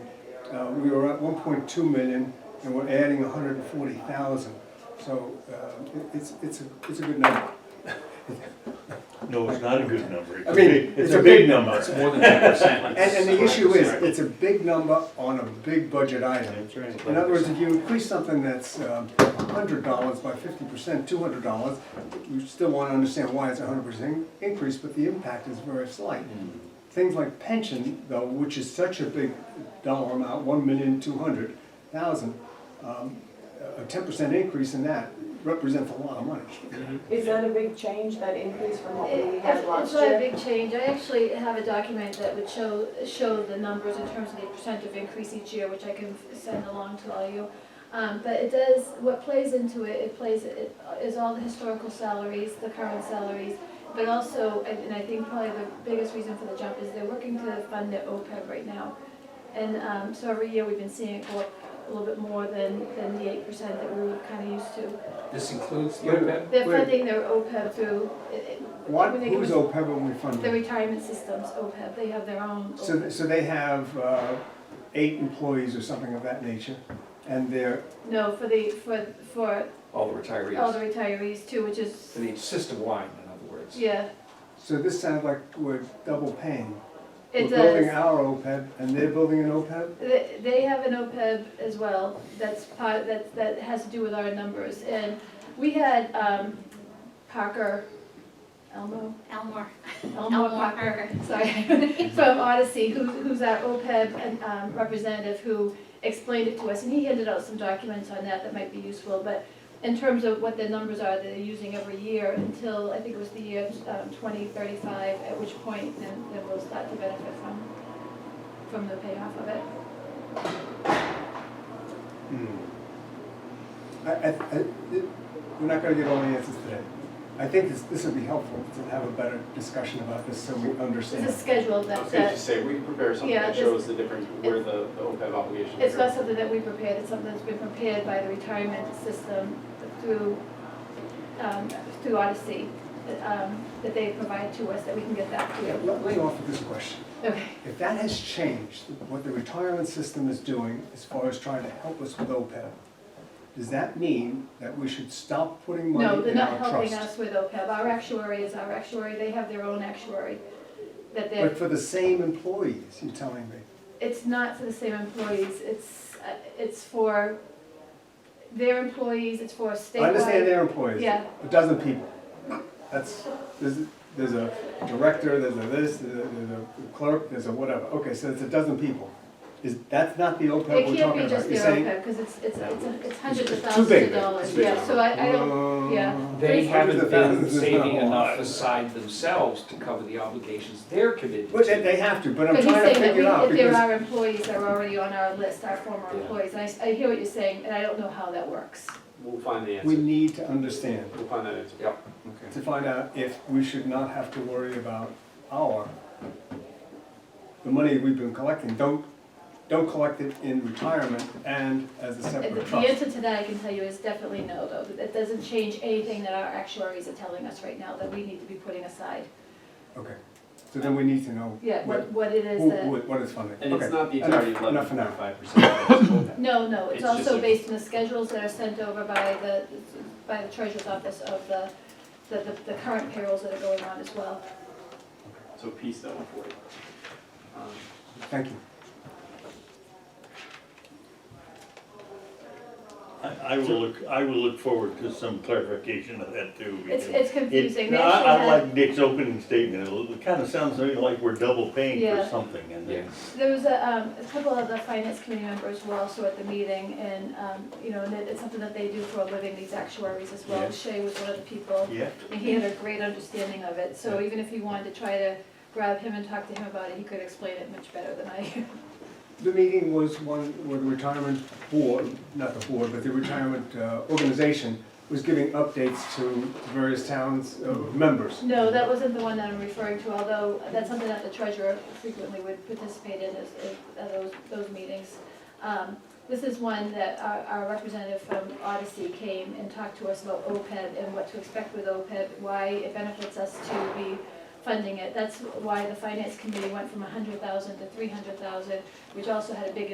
Uh, We were at one point two million, and we're adding hundred and forty thousand, so uh, it- it's, it's, a it's a good number. No, it's not a good number. It's I a mean, big, it's a big number. It's more than ten percent. And, and the issue is, it's a big number on a big budget item. That's right. In other words, if you increase something that's um, hundred dollars by fifty percent, two hundred dollars, you still wanna understand why it's a hundred percent increase, but the impact is very slight. Mm. Things like pension, though, which is such a big dollar amount, one million two hundred thousand, um, a ten percent increase in that represents a lot of money. Is that a big change, that increase from what we It- had It's last it's not a year? big change. I actually have a document that would show, show the numbers in terms of the percent of increase each year, which I can f- send along to all you. Um, but it does, what plays into it, it plays, it is all the historical salaries, the current salaries, but also, and and I think probably the biggest reason for the jump is they're working to fund their OPEB E right now. And, um, so every year we've been seeing it go up a little bit more than, than the eight percent that we were kind of used to. This includes the Wait a OPEB? They're Wait. funding their OPEB through, it- it- What, when they who's give us- OPEB when we fund the it? retirement systems, OPEB, they have their own. So, so they have uh, eight employees or something of that nature, and they're, No, for the, for, for All the all the retirees. retirees too, which is, I mean, system-wide, in other words. yeah, so this sounds like we're double paying. it We're building does. our OPEB, and they're building an OPEB? They, they have an OPEB as well, that's part, that, that has to do with our numbers. And we had, um, Parker, Elmo, Elmore. Elmo Parker, sorry, from Odyssey, who, who's our OPEB and, um, representative who explained it to us, and he handed out some documents on that that might be useful, but in terms of what the numbers are that they're using every year until, I think it was the year, um, twenty thirty-five, at which point then, then we'll start to benefit from, from the payoff of it. Hmm. I, I, I- it- we're not gonna get all the answers today. I think this, this would be helpful to have a better discussion about this so we understand. There's a schedule I that, was gonna just that, say, we prepare something Yeah, that this- shows the difference, where the the OPEB obligations are. it's not something that we prepared, it's something that's been prepared by the retirement system through, um, through Odyssey, that, um, that they provide to us, that we can get that to Yeah, you. Let let me offer this question. Okay. If that has changed, what the retirement system is doing as far as trying to help us with OPEB, does that mean that we should stop putting No, money they're in not our helping trust? us with OPEB. Our actuary is our actuary. They have their own actuary. But That they're, for the same employees, you're telling me? it's not for the same employees. It's, uh, it's for their employees, it's for I understand statewide. their employees. Yeah. A dozen people. That's, there's, there's a director, there's a this, there's a there's a clerk, there's a whatever. Okay, so it's a dozen people. Is, that's not the OPEB It we're can't talking be about. just You're their saying? OPEB because it's, it's, it's a- it's hundreds of It's too thousands big. of dollars. It's too Yeah, big. so I, I don't, yeah. They haven't been $300,000 is not saving a lot. enough aside themselves to cover the obligations they're committed But they to. they have to, but I'm But he's trying to saying that figure we, it out if there because, are employees that are already on our list, our former Yeah. employees, and I, s- I hear what you're saying, and I don't know how that works. We'll find the we answer, need to understand, we'll find that answer. Yep. to find out if we should not have to worry about our, the money we've been collecting. Don't, don't collect it in retirement and as a The separate the trust. answer to that I can tell you is definitely no, though. That- That doesn't change anything that our actuaries are telling us right now that we need to be putting aside. Okay, so then we need to know. Yeah, what- what, what it is Who, that, who- what is funding? And it's Okay, not the enough- entirety of eleven Enough for point now. five percent. no, no, it's It's just also a- based on the schedules that are sent over by the, by the treasurer's office of the, the, the- the current payrolls that are going on as well. So piece that one for you. Um, Thank you. I, I will look, I will look forward to some clarification of that too. It's, because it's confusing. it- They No, I, actually I had- like Dick's opening statement, it kinda sounds to me like we're double paying for Yeah. something and then. There was a, um, a couple of the finance committee members were also at the meeting and, um, you know, and it- it's something that they do for a living, these actuaries as well. Yeah. Shay was one of the people. Yeah, And he had a great understanding of it, so even if you wanted to try to grab him and talk to him about it, he could explain it much better than I. The meeting was one where the retirement board, not the board, but the retirement uh, organization was giving updates to various towns, uh, members. No, that wasn't the one that I'm referring to, although that's something that the treasurer frequently would participate in, is, is, uh, those, those meetings. Um, This is one that our, our representative from Odyssey came and talked to us about OPEB and what to expect with OPEB, why it benefits us to be funding it. That's why the finance committee went from a hundred thousand to three hundred thousand, which also had a big